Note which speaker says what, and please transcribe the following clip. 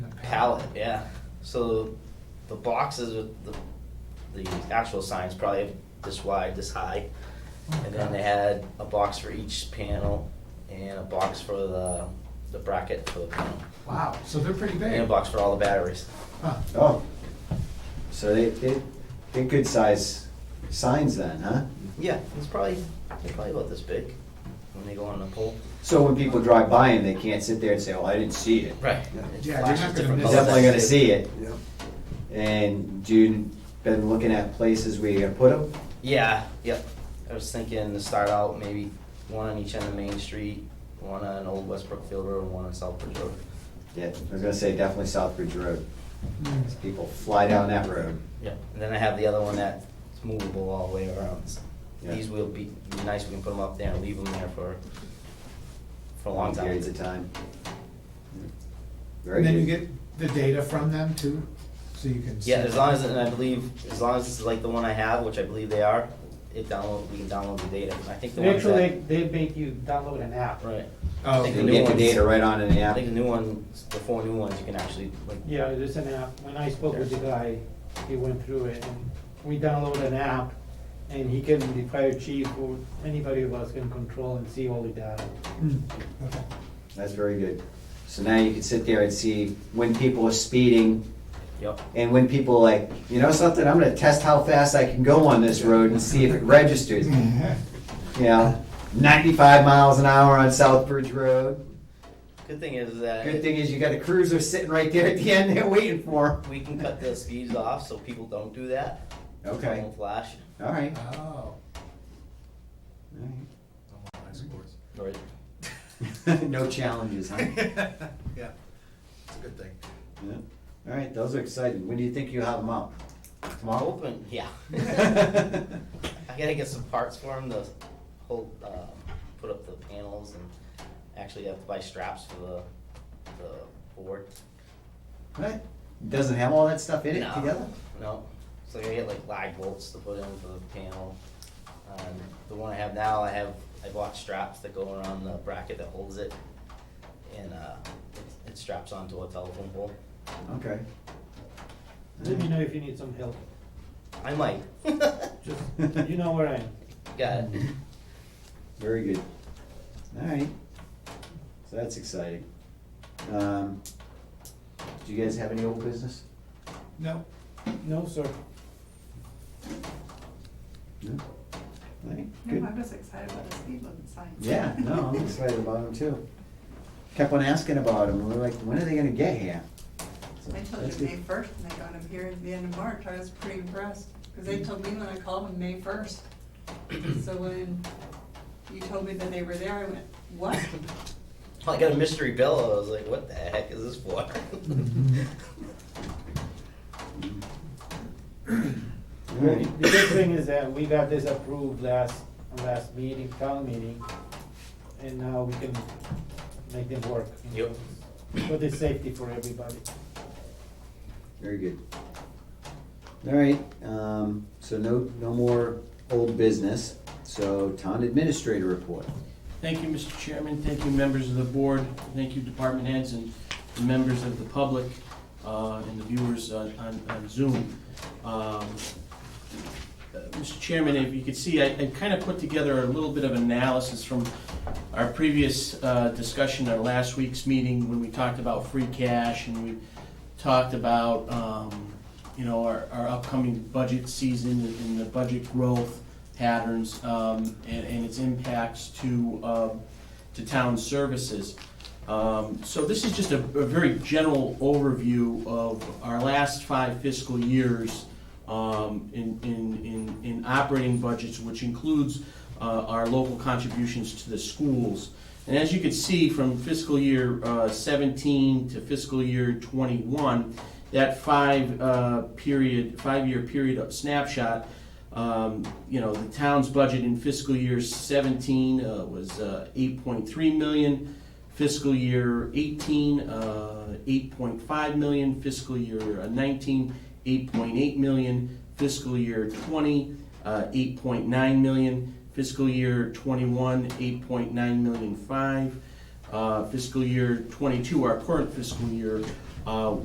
Speaker 1: pallet, yeah. So the boxes with the, the actual signs probably this wide, this high. And then they had a box for each panel and a box for the, the bracket for the panel.
Speaker 2: Wow, so they're pretty
Speaker 1: And a
Speaker 2: big.
Speaker 1: box for all the batteries.
Speaker 2: Huh.
Speaker 3: Oh, so they, they, they're good size signs then, huh?
Speaker 1: Yeah, it's probably, they're probably about this big when they go on the pole.
Speaker 3: So when people drive by and they can't sit there and say, oh, I didn't see it.
Speaker 1: Right. It
Speaker 2: Yeah, you're not
Speaker 1: flashes
Speaker 2: gonna
Speaker 1: different
Speaker 2: miss
Speaker 3: They're
Speaker 1: colors.
Speaker 3: definitely gonna see it.
Speaker 4: Yep.
Speaker 3: And do you, been looking at places where you're gonna put them?
Speaker 1: Yeah, yep. I was thinking to start out maybe one on each end of Main Street, one on Old Westbrook Field Road, and one on Southbridge Road.
Speaker 3: Yeah, I was gonna say definitely Southbridge Road.
Speaker 2: Mm.
Speaker 3: People fly down that road.
Speaker 1: Yep. And then I have the other one that's movable all the way around.
Speaker 3: Yeah.
Speaker 1: These will be, be nice, we can put them up there and leave them there for, for a long time.
Speaker 3: Periods of time. Very
Speaker 2: And then you
Speaker 3: good.
Speaker 2: get the data from them too, so you can.
Speaker 1: Yeah,
Speaker 2: see-
Speaker 1: as long as, and I believe, as long as it's like the one I have, which I believe they are, it download, we can download the data. I think the ones
Speaker 5: Actually,
Speaker 1: that.
Speaker 5: they make you download an app.
Speaker 1: Right.
Speaker 2: Oh,
Speaker 1: I think
Speaker 3: You
Speaker 1: the new
Speaker 3: get the
Speaker 1: ones-
Speaker 3: data right on in the
Speaker 1: I
Speaker 3: app.
Speaker 1: think the new ones, the four new ones, you can actually like.
Speaker 5: Yeah, there's an app. When I spoke with the guy, he went through it. and We download an app and he can, the fire chief or anybody of us can control and see all the data.
Speaker 2: Mm, okay.
Speaker 3: That's very good. So now you can sit there and see when people are speeding,
Speaker 1: Yep.
Speaker 3: And when people are like, you know something, I'm gonna test how fast I can go on this road and see if it registers.
Speaker 5: Mm-hmm.
Speaker 3: You know, ninety-five miles an hour on Southbridge Road.
Speaker 1: Good thing is that.
Speaker 3: Good thing is you got a cruiser sitting right there at the end there waiting for
Speaker 1: We can cut the speeds off so people don't do that.
Speaker 3: them. Okay,
Speaker 1: Won't flash.
Speaker 3: all right.
Speaker 2: Oh,
Speaker 1: Or
Speaker 3: No challenges, huh?
Speaker 4: Yeah, it's a good thing.
Speaker 3: Yeah. All right, those are exciting. When do you think you have them up? Tomorrow?
Speaker 1: open, yeah.
Speaker 3: All
Speaker 1: I gotta get some parts for them to hold, uh, put up the panels and actually have to buy straps for the, the board.
Speaker 3: right. Doesn't have all that stuff in it
Speaker 1: No.
Speaker 3: together?
Speaker 1: No, so I gotta get like live bolts to put in for the panel. Um, the one I have now, I have, I bought straps that go around the bracket that holds it. And, uh, it- it straps onto a telephone pole.
Speaker 3: Okay.
Speaker 5: Let
Speaker 3: Mm.
Speaker 5: me know if you need some help.
Speaker 1: I might.
Speaker 5: Just, you know where I am.
Speaker 1: Got it.
Speaker 3: Very good. All right. So that's exciting. Um, do you guys have any old business?
Speaker 2: no,
Speaker 5: No, sir.
Speaker 3: No? All right,
Speaker 6: No,
Speaker 3: good.
Speaker 6: I'm just excited about the speed limit signs.
Speaker 3: Yeah, no, I'm excited about them too. Kept on asking about them, we we're like, when are they gonna get here? So
Speaker 6: I told
Speaker 3: that's
Speaker 6: you
Speaker 3: good.
Speaker 6: May first, and they got them here at the end of March, I was pretty impressed, because they told me when I called them May first. So when you told me that they were there, I went, what?
Speaker 1: I got a mystery bill. I was like, what the heck is this for?
Speaker 3: All right.
Speaker 5: The good thing is that we got this approved last, last meeting, town meeting, and now we can make them work. you know. For the safety for everybody.
Speaker 3: Very good. All right, um, so no, no more old business, so town administrator report.
Speaker 7: Thank you, Mr. Chairman. Thank you, members of the board. Thank you, department heads and the members of the public uh, and the viewers on on- on Zoom. Um, uh, Mr. Chairman, if you could see, I kind of put together a little bit of analysis from our previous uh, discussion at last week's meeting when we talked about free cash and we talked about, um, you know, our our upcoming budget season and the budget growth patterns um, and, and its impacts to, um, to town services. Um, So this is just a, a very general overview of our last five fiscal years um, in, in, in, in operating budgets, which includes uh, our local contributions to the schools. And as you can see, from fiscal year uh, 17 to fiscal year 21, that five uh, period, five-year period snapshot, um, you know, the town's budget in fiscal year 17 uh, was uh, 8.3 million, fiscal year 18, uh, 8.5 million, fiscal year uh, 19, 8.8 million, fiscal year 20, uh, 8.9 million, fiscal year 21, 8.9 million five, uh, fiscal year 22, our current fiscal year, uh,